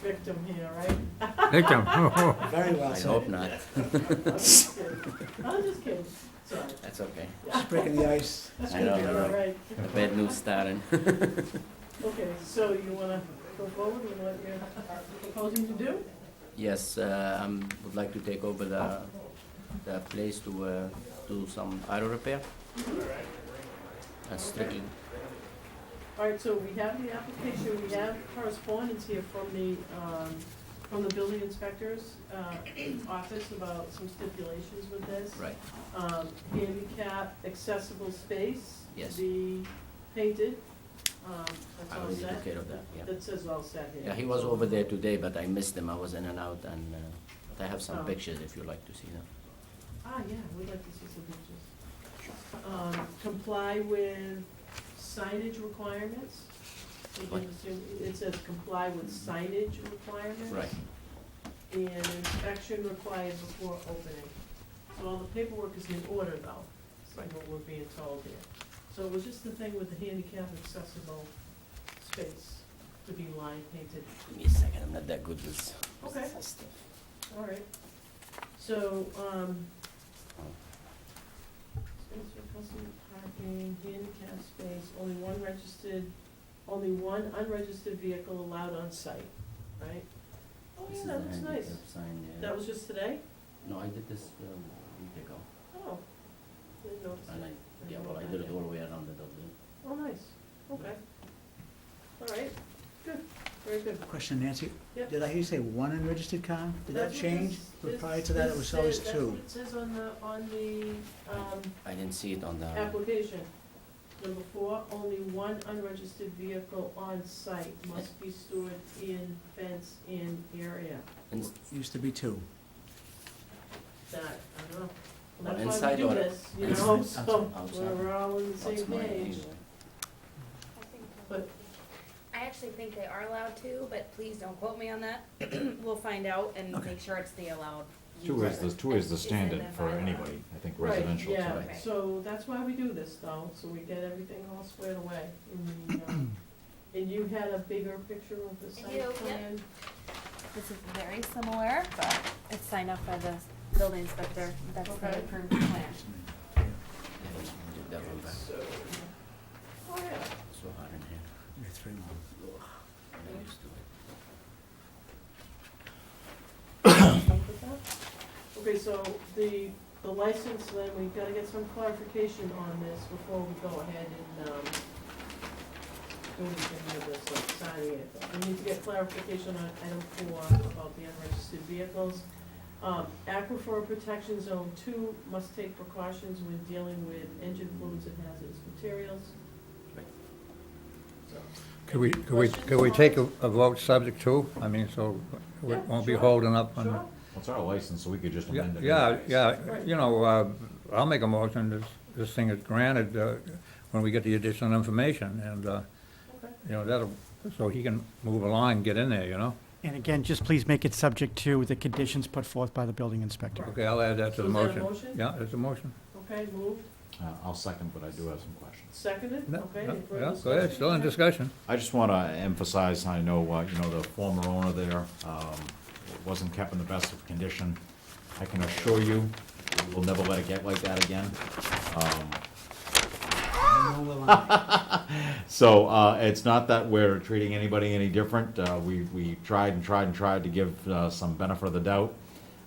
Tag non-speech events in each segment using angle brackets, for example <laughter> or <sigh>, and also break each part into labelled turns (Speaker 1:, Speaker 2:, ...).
Speaker 1: system here, right?
Speaker 2: They come, oh,
Speaker 3: Very well
Speaker 4: I hope
Speaker 3: said.
Speaker 4: not. <laughs>
Speaker 1: I'm just kidding. I'm just kidding, sorry.
Speaker 4: That's okay.
Speaker 3: Just breaking the ice.
Speaker 1: That's
Speaker 4: I know,
Speaker 1: gonna be
Speaker 4: I
Speaker 1: all
Speaker 4: know.
Speaker 1: right.
Speaker 4: The bad news starting.
Speaker 1: Okay, so you wanna go forward with what you're proposing to do?
Speaker 4: <laughs> Yes, uh, I would like to take over the, the place to uh, do some auto repair. That's strictly,
Speaker 1: All right, so we have the application, we have correspondence here from the, um, from the building inspector's, uh, office about some stipulations with this.
Speaker 4: right,
Speaker 1: Um, handicap accessible space.
Speaker 4: Yes.
Speaker 1: To be painted, um, that's
Speaker 4: I
Speaker 1: all
Speaker 4: already took
Speaker 1: set.
Speaker 4: care of that, yeah.
Speaker 1: That says all set here.
Speaker 4: Yeah, he was over there today, but I missed him, I was in and out, and, uh, but I have
Speaker 1: Oh.
Speaker 4: some pictures if you like to see them.
Speaker 1: Ah, yeah, we'd like to see some pictures. Um, comply with signage requirements. We can
Speaker 4: What?
Speaker 1: assume- It says comply with signage requirements.
Speaker 4: Right,
Speaker 1: And inspection required before opening. So all the paperwork is in order though, is
Speaker 4: Right.
Speaker 1: what we're being told here. So it was just the thing with the handicap accessible space to be line painted.
Speaker 4: give me a second, I'm not that good with.
Speaker 1: Okay. Oh,
Speaker 4: with stuff.
Speaker 1: All right, so, um, space for customer parking, handicap space, only one registered, only one unregistered vehicle allowed on site, right? Oh,
Speaker 4: This
Speaker 1: yeah,
Speaker 4: is
Speaker 1: that
Speaker 4: the
Speaker 1: looks nice.
Speaker 4: handicap sign there.
Speaker 1: That was just today?
Speaker 4: No, I did this um, a week ago,
Speaker 1: Oh. Didn't notice
Speaker 4: and I,
Speaker 1: that.
Speaker 4: yeah, well, I did it all the way around the building.
Speaker 1: Oh, nice, okay. All right, good, very good.
Speaker 3: Question, Nancy.
Speaker 1: Yeah.
Speaker 3: Did I hear you say one unregistered car? Did that
Speaker 1: That's what
Speaker 3: change?
Speaker 1: this-
Speaker 3: But
Speaker 1: this-
Speaker 3: prior to that, it
Speaker 1: this
Speaker 3: was always
Speaker 1: says-
Speaker 3: two.
Speaker 1: That's what it says on the, on the, um,
Speaker 4: I didn't see it on the,
Speaker 1: Application, number four, only one unregistered vehicle on site must be stored in fenced-in area.
Speaker 4: ins-
Speaker 3: Used to be two.
Speaker 1: That, I don't know.
Speaker 4: Well,
Speaker 1: That's why
Speaker 4: inside
Speaker 1: we do
Speaker 4: or
Speaker 1: this, you
Speaker 4: inside,
Speaker 1: know,
Speaker 4: outside,
Speaker 1: so
Speaker 4: outside.
Speaker 1: we're all on the same
Speaker 4: what's mine
Speaker 1: page.
Speaker 4: anyway.
Speaker 5: I think
Speaker 1: But-
Speaker 5: I actually think they are allowed to, but please don't quote me on that. <clears throat> We'll find out and
Speaker 3: Okay.
Speaker 5: make sure it's the allowed.
Speaker 2: two is the,
Speaker 5: use.
Speaker 2: two is the
Speaker 5: It's in
Speaker 2: standard
Speaker 5: the
Speaker 2: for
Speaker 5: bylaw.
Speaker 2: anybody, I think
Speaker 1: Right,
Speaker 2: residential.
Speaker 1: yeah,
Speaker 2: so-
Speaker 5: right.
Speaker 1: So that's why we do this though, so we get everything all squared away. And, um,
Speaker 2: <clears throat>
Speaker 1: And you had a bigger picture of the
Speaker 5: I
Speaker 1: site
Speaker 5: do, yep.
Speaker 1: plan?
Speaker 6: This is very similar, but it's signed off by the building inspector. That's the
Speaker 1: Okay.
Speaker 6: approved plan.
Speaker 4: Yeah, that's- did that one back.
Speaker 1: So, oh yeah,
Speaker 4: So hard in here.
Speaker 3: Yeah, Three more.
Speaker 4: I'm not used to it.
Speaker 1: something like that. Okay, so the, the license then, we've gotta get some clarification on this before we go ahead and, um, do anything with this, like signing it. We need to get clarification on item four about the unregistered vehicles. Um, aquifer protection zone two must take precautions when dealing with engine fluids and hazardous materials.
Speaker 7: Could we, could we, could we take a a vote subject to, I mean, so we
Speaker 1: Yeah,
Speaker 7: won't be
Speaker 1: sure.
Speaker 7: holding up
Speaker 1: Sure,
Speaker 7: on?
Speaker 2: Well, It's our license, so we could just
Speaker 7: Yeah,
Speaker 2: amend it.
Speaker 7: yeah,
Speaker 2: anyways.
Speaker 7: yeah, you know, uh, I'll make a motion, this, this thing is granted, uh, when we get the additional information, and, uh,
Speaker 1: okay.
Speaker 7: you know, that'll, so he can move along and get in there, you know?
Speaker 8: And again, just please make it subject to the conditions put forth by the building inspector.
Speaker 7: Okay, I'll add that
Speaker 1: So
Speaker 7: to the
Speaker 1: is that a
Speaker 7: motion.
Speaker 1: motion?
Speaker 7: Yeah, it's a motion.
Speaker 1: Okay, moved,
Speaker 2: Uh, I'll second, but I do have some questions.
Speaker 1: seconded,
Speaker 7: No,
Speaker 1: okay.
Speaker 7: no,
Speaker 1: any further
Speaker 7: Yeah, go ahead, still in discussion.
Speaker 2: I just want to emphasize, I know, uh, you know, the former owner there um, wasn't kept in the best of condition. I can assure you, we'll never let it get like that again. Um,
Speaker 3: No will I.
Speaker 2: So uh, it's not that we're treating anybody any different. Uh, We, we tried and tried and tried to give uh, some benefit of the doubt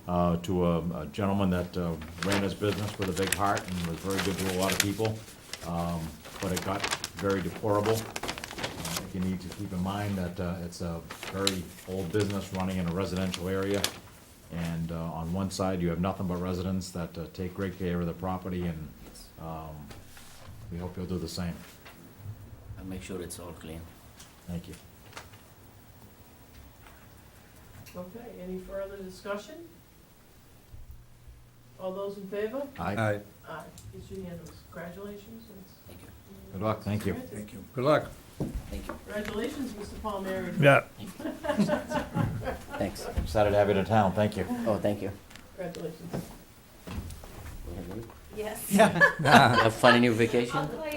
Speaker 2: uh, to a a gentleman that uh, ran his business with a big heart and was very good to a lot of people. Um, But it got very deplorable. Uh, You need to keep in mind that uh, it's a very old business running in a residential area. And uh, on one side, you have nothing but residents that uh, take great care of the property and um, we hope you'll do the same.
Speaker 4: I'll make sure it's all clean.
Speaker 2: Thank you.
Speaker 1: Okay, any further discussion? All those in favor?
Speaker 2: Aye.
Speaker 7: Aye,
Speaker 1: Aye, it's unanimous. Congratulations. it's-
Speaker 4: Thank you,
Speaker 2: Good luck, thank you.
Speaker 3: Thank you.
Speaker 7: good luck.
Speaker 4: thank you,
Speaker 1: Congratulations, Mr. Palmieri.
Speaker 7: Yeah.
Speaker 4: thanks.
Speaker 2: I'm Excited to have you in town, thank you.
Speaker 4: Oh, thank you.
Speaker 1: Congratulations.
Speaker 4: You
Speaker 5: Yes.
Speaker 4: <laughs>
Speaker 6: <laughs>
Speaker 4: Have fun in your vacation?
Speaker 5: I'll call
Speaker 4: Oh,
Speaker 5: Oh, Um,